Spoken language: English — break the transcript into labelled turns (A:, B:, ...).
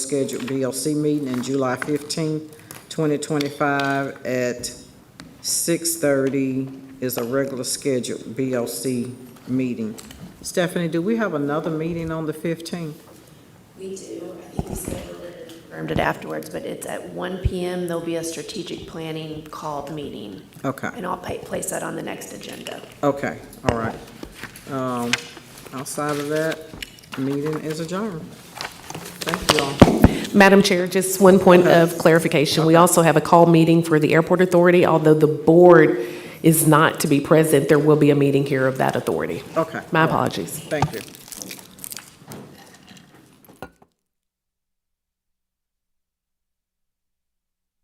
A: scheduled BLC meeting in July 15, 2025 at 6:30 is a regular scheduled BLC meeting. Stephanie, do we have another meeting on the 15th?
B: We do, I think we scheduled it and confirmed it afterwards, but it's at 1 PM. There'll be a strategic planning called meeting,
A: Okay,
B: and I'll pa- place that on the next agenda.
A: okay, all right. Um, Outside of that, meeting is adjourned. Thank you all.
C: Madam Chair, just one point of clarification. We also have a call meeting for the Airport Authority. Although the board is not to be present, there will be a meeting here of that authority.
A: Okay.
C: My apologies.
A: Thank you.